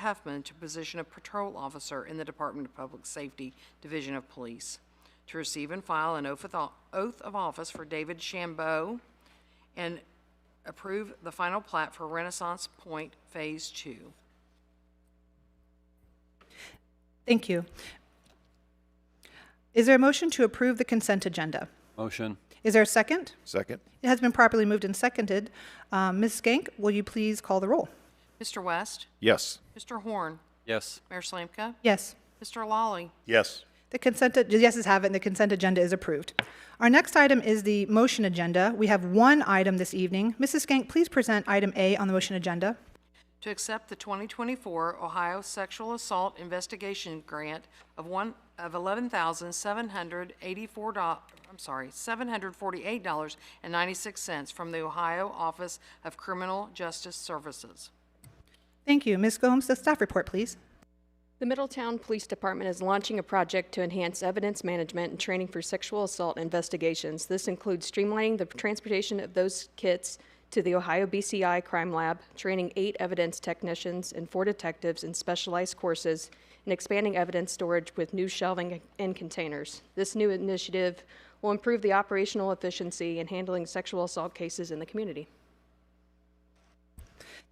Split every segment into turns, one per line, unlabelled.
Huffman to position of patrol officer in the Department of Public Safety, Division of Police, to receive and file an oath of o- oath of office for David Shambo, and approve the final plat for Renaissance Point Phase Two.
Thank you. Is there a motion to approve the consent agenda?
Motion.
Is there a second?
Second?
It has been properly moved and seconded. Um, Ms. Skank, will you please call the roll?
Mr. West?
Yes.
Mr. Horn?
Yes.
Mayor Slanka?
Yes.
Mr. Lawley?
Yes.
The consent, the yeses have it, and the consent agenda is approved. Our next item is the motion agenda. We have one item this evening. Mrs. Skank, please present item A on the motion agenda.
to accept the 2024 Ohio Sexual Assault Investigation Grant of one, of $11,784, I'm sorry, $748.96 from the Ohio Office of Criminal Justice Services.
Thank you. Ms. Gomes, the staff report, please.
The Middletown Police Department is launching a project to enhance evidence management and training for sexual assault investigations. This includes streamlining the transportation of those kits to the Ohio BCI Crime Lab, training eight evidence technicians and four detectives in specialized courses, and expanding evidence storage with new shelving and containers. This new initiative will improve the operational efficiency in handling sexual assault cases in the community.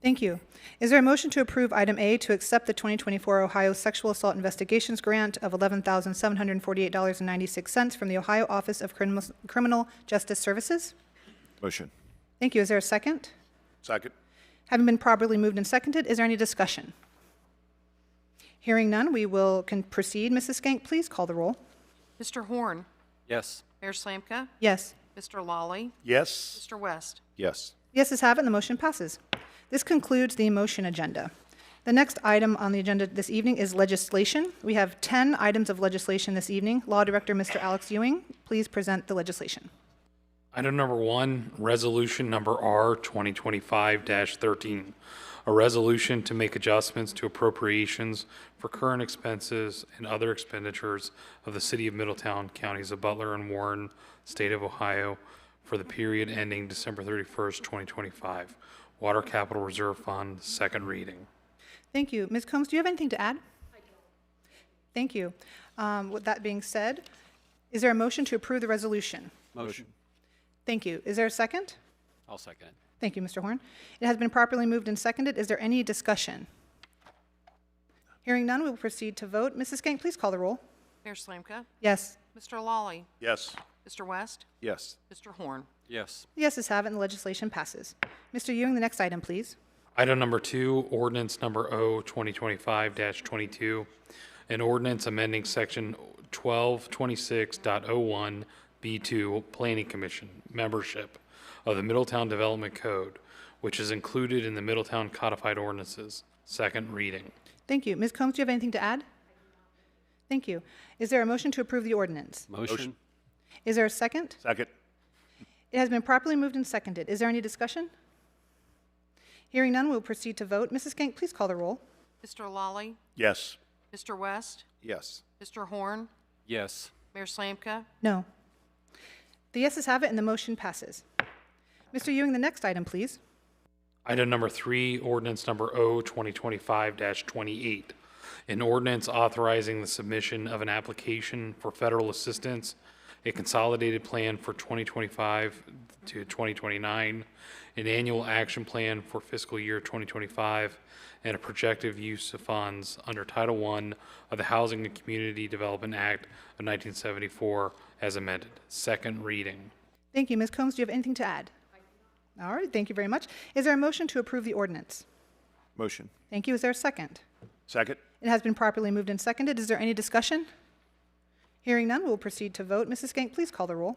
Thank you. Is there a motion to approve item A to accept the 2024 Ohio Sexual Assault Investigations Grant of $11,748.96 from the Ohio Office of Criminal- Criminal Justice Services?
Motion?
Thank you. Is there a second?
Second?
Having been properly moved and seconded, is there any discussion? Hearing none, we will can proceed. Mrs. Skank, please call the roll.
Mr. Horn,
Yes.
Mayor Slanka,
Yes.
Mr. Lawley,
Yes.
Mr. West.
Yes.
Yeses have it, and the motion passes. This concludes the motion agenda. The next item on the agenda this evening is legislation. We have 10 items of legislation this evening. Law Director, Mr. Alex Ewing, please present the legislation.
Item number one, resolution number R 2025-13, a resolution to make adjustments to appropriations for current expenses and other expenditures of the City of Middletown, counties of Butler and Warren, State of Ohio, for the period ending December 31st, 2025. Water Capital Reserve Fund, second reading.
Thank you. Ms. Combs, do you have anything to add? Thank you. Um, With that being said, is there a motion to approve the resolution?
Motion.
Thank you. Is there a second?
I'll second it.
Thank you, Mr. Horn. It has been properly moved and seconded. Is there any discussion? Hearing none, we will proceed to vote. Mrs. Skank, please call the roll.
Mayor Slanka,
Yes.
Mr. Lawley,
Yes.
Mr. West,
Yes.
Mr. Horn.
Yes.
The yeses have it, and the legislation passes. Mr. Ewing, the next item, please.
Item number two, ordinance number O 2025-22, an ordinance amending section 1226.01B2 Planning Commission membership of the Middletown Development Code, which is included in the Middletown Codified Ordinances, second reading.
Thank you. Ms. Combs, do you have anything to add? Thank you. Is there a motion to approve the ordinance?
Motion.
Is there a second?
Second?
It has been properly moved and seconded. Is there any discussion? Hearing none, we will proceed to vote. Mrs. Skank, please call the roll.
Mr. Lawley,
Yes.
Mr. West,
Yes.
Mr. Horn,
Yes.
Mayor Slanka,
No. The yeses have it, and the motion passes. Mr. Ewing, the next item, please.
Item number three, ordinance number O 2025-28, an ordinance authorizing the submission of an application for federal assistance, a consolidated plan for 2025 to 2029, an annual action plan for fiscal year 2025, and a projected use of funds under Title I of the Housing and Community Development Act of 1974 as amended. Second reading.
Thank you. Ms. Combs, do you have anything to add? All right, thank you very much. Is there a motion to approve the ordinance?
Motion?
Thank you. Is there a second?
Second?
It has been properly moved and seconded. Is there any discussion? Hearing none, we'll proceed to vote. Mrs. Skank, please call the roll.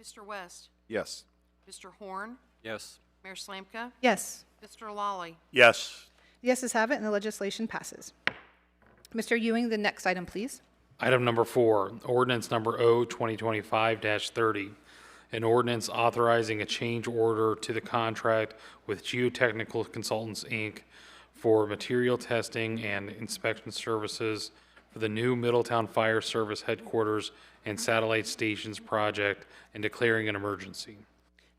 Mr. West,
Yes.
Mr. Horn,
Yes.
Mayor Slanka,
Yes.
Mr. Lawley,
Yes.
The yeses have it, and the legislation passes. Mr. Ewing, the next item, please.
Item number four, ordinance number O 2025-30, an ordinance authorizing a change order to the contract with Geotechnical Consultants, Inc. for material testing and inspection services for the new Middletown Fire Service Headquarters and Satellite Stations project and declaring an emergency.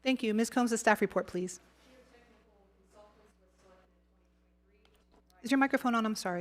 Thank you. Ms. Combs, the staff report, please. Is your microphone on? I'm sorry.